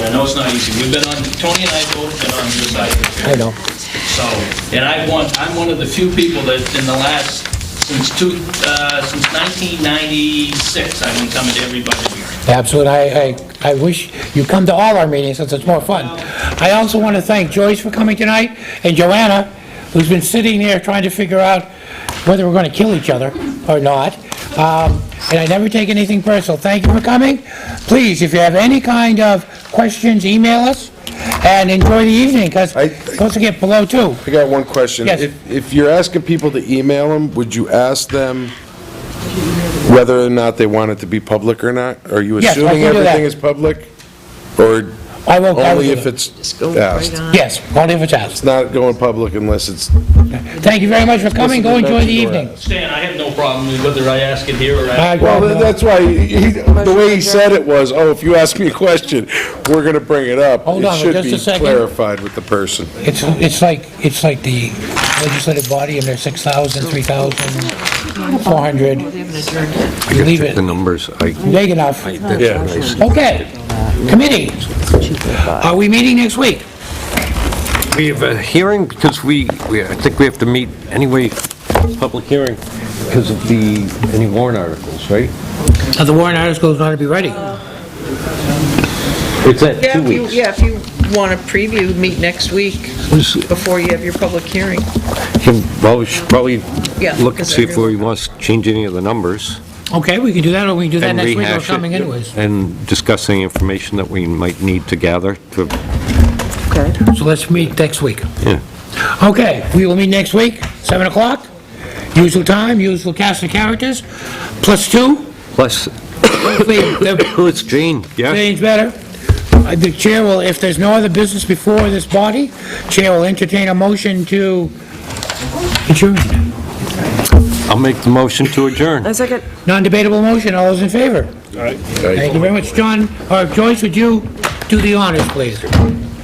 it's not easy. We've been on, Tony and I both been on your side of the fence. I know. So, and I want, I'm one of the few people that in the last, since two, uh, since 1996, I've been coming to every budget hearing. Absolutely. I, I, I wish you come to all our meetings, since it's more fun. I also want to thank Joyce for coming tonight, and Joanna, who's been sitting there trying to figure out whether we're going to kill each other or not. Um, And I never take anything personal. Thank you for coming. Please, if you have any kind of questions, email us, and enjoy the evening, because I- it's supposed to get below two. I got one question. Yes. If- If you're asking people to email them, would you ask them whether or not they want it to be public or not? Are you Yes, I assuming can do that. everything is public? Or I will, I will only do if that. it's Just go right asked? on. Yes, only if it's asked. It's not going public unless it's... Thank you very much for coming. Go enjoy the evening. Stan, I have no problem with whether I ask it here or I- I... Well, tha- that's why, he- the way he said it was, oh, if you ask me a question, we're going to bring it up. Hold on, just a It should be second. clarified with the person. It's, it's like, it's like the legislative body and their 6,000, 3,000, 400, They haven't adjourned yet. I leave check it the numbers. I, big enough. Yeah. Okay, committee, are we meeting next week? we have a hearing, because we, we- I think we have to meet anyway, public hearing, because of the, any warrant articles, right? Are the warrant articles going to be ready? It's at Yeah, two if you, weeks. yeah, if you want to preview, meet next week Was- before you have your public hearing. can- Well, we should probably Yeah, look and because see if we everyone- want to change any of the numbers. Okay, we can do that, or we can do that and next week, or rehash it, coming anyways. And discuss any information that we might need to gather to, Okay. So let's meet next week. yeah. Okay, we will meet next week, 7 o'clock, usual time, usual cast of characters, plus two, Plus, hopefully the oh, it's Jane, yeah? Change better. Uh, The chair will, if there's no other business before this body, chair will entertain a motion to adjourn. I'll make the motion to adjourn. A second. Non-debatable motion, all uh, those in favor? Thank you very much, John, or Joyce, would you do the honors, please?